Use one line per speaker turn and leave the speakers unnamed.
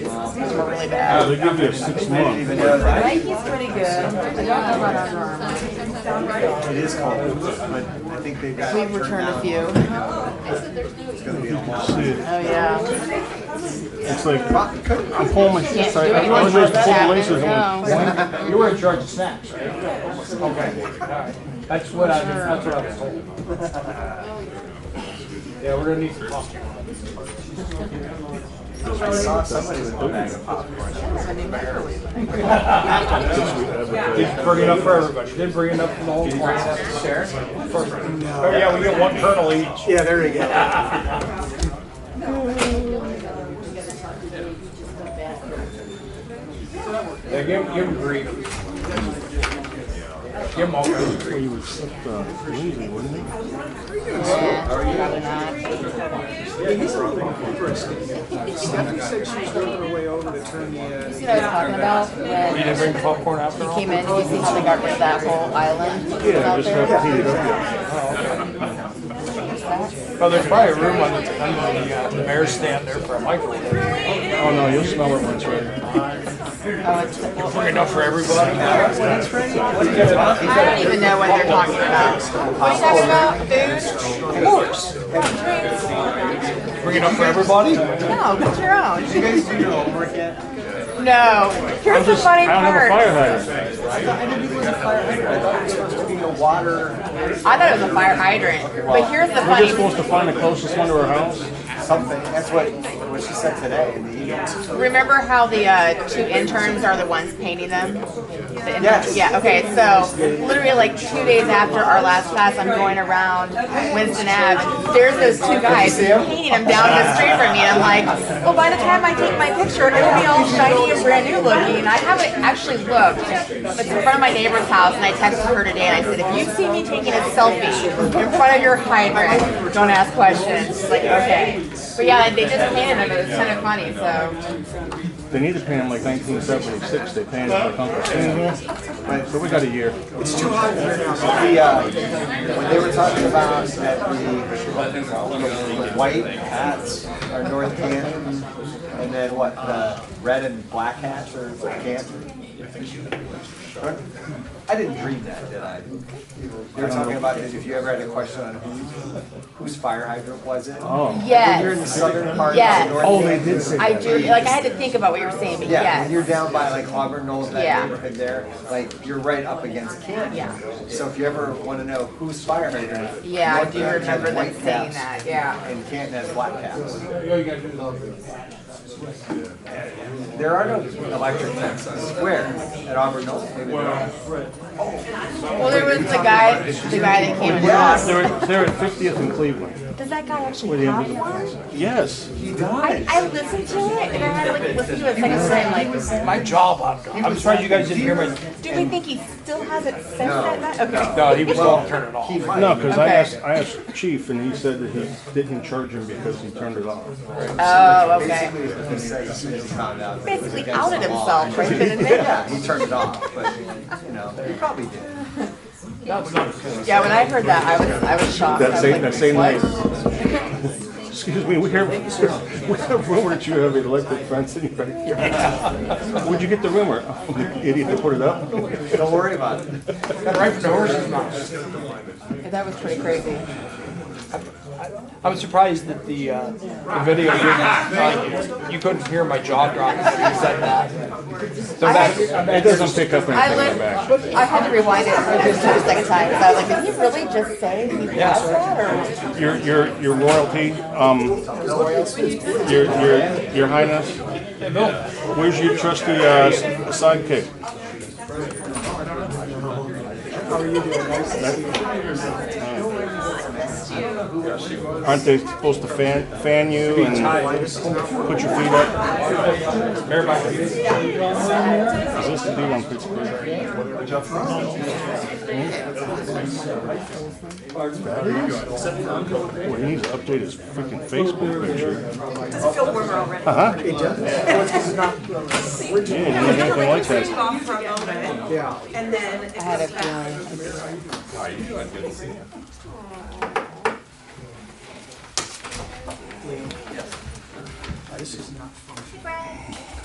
ones were really
Yeah,
bad.
they give you six months.
Oh,
Nike's pretty good. I don't know about Under Armour.
It is called Boots, but I think they've got.
We've returned a few.
It's gonna be a
You
long.
see it.
Oh, yeah.
It's like, I'm pulling my,
Can't do
sorry, I
it.
was just pulling
That
laces. I'm like,
happens.
You were in charge of snacks, right? Okay, alright. That's what I, that's what I was told. Yeah, we're gonna need some coffee.
I saw somebody with a bag of popcorn.
Didn't bring enough for everybody, didn't bring enough for the whole class.
Share?
Oh, yeah, we get one kernel each.
Yeah, there you go.
Yeah, give, give them grief. Give them all grief.
He was such a lazy, wasn't he?
Yeah, probably not. You see what I was talking about? When
You didn't bring popcorn after
He
all?
came in, you see how they got rid of that whole island that was
Yeah,
out
just have
there?
to heat it up.
Oh, there's probably a room on the, on the, uh, the mayor's stand there for a microwave.
Oh, no, you'll smell it once, right?
Bring enough for everybody.
I don't even know what they're talking about. What are you talking about? Food?
Of course. Bring it up for everybody?
No, get your
You
own.
guys do your homework yet?
No.
Here's the
I
funny
don't have a fire
part.
hydrant.
I didn't think it was a fire hydrant. I thought it was supposed to be a water
I thought it was a fire hydrant. But here's
We're
the
just
funny
supposed to find the closest one to our house.
something. That's what, what she said today in the email.
Remember how the uh, two interns are the ones painting them? The interns-
Yes.
Yeah, okay, so literally like two days after our last class, I'm going around Winston Ave. There's those two guys painting them down the street from me. And I'm like, well, by the time I take my picture, it'll be all shiny and brand new looking. I haven't actually looked. It's in front of my neighbor's house, and I texted her today and I said, if you see me taking a selfie in front of your hydrant, don't ask questions. She's like, okay. But yeah, they just painted them. It was kind of funny, so.
They need to pay him like nineteen seventy-six, they pay him like Uncle Sam. Right, so we got a year.
It's too hot in here now. The, uh, when they were talking about that the, the white hats are North Canton, and then what, the red and black hats are for Canton? I didn't dream that, did I? They were talking about this, if you ever had a question on who, whose fire hydrant was it?
Oh.
When you're in the
Yes,
southern part
Yes.
of North
Oh, they
Canton,
did say
I
that.
do. Like I had to think about what you were saying, but
Yeah,
yes.
when you're down by like Auburn Knolls, that
Yeah.
neighborhood there, like you're right up against Canton.
Yeah.
So if you ever want to know who's fire hydrant,
yeah, I
North
do
Canton has
remember them
uh, white
saying
caps
that. Yeah.
And Canton has black caps. There are no electric fences on Square at Auburn Knolls. Maybe there are.
Well, there was the guy, the guy that came and
Yes.
talked.
They're, at- they're at fiftieth in Cleveland.
Does that guy actually
Where the
have
ambulance-
one?
Yes.
He
I,
dies.
I listened to it and I had to like listen to it a second time. Like,
My job, I'm, I'm surprised you guys didn't hear me.
do we think he still has it since that night? Okay.
No, he was going to turn it off.
He might.
No, because I
Okay.
asked, I asked Chief and he said that he didn't charge him because he turned it off.
Oh, okay.
Basically, what he said as soon as he found out. that it was
Basically
against
outed
the law.
himself right then and there.
Yeah, he turned it off, but you know, he probably did.
Yeah, when I heard that, I was I was shocked. I
That
was
same,
like,
that same
what?
night. Excuse me, we have, we have rumor that you have an electric fence in your backyard. Where'd you get the rumor? Oh, Idiot, they put it up?
Don't worry about it.
Right from the horse's mouth.
That was pretty crazy.
I was surprised that the, uh, the video didn't, uh, you couldn't hear my jaw drop when you said that. So that,
It doesn't pick up
I
anything in the back.
looked, I had to rewind it for the second time because I was like, did he really just say he has that? Or?
Your, your, your royalty, um, your, your, your highness, where's your trusty, uh, sidekick? Aren't they supposed to fan, fan you and put your feet up?
Mayor Mike,
Is this the D1 Pittsburgh? Boy, he needs to update his freaking Facebook picture. Uh-huh.
Does it feel warmer already?
Yeah, he doesn't look anything like
Take
that.
off for a moment. And then it
I had a
goes back.
feeling.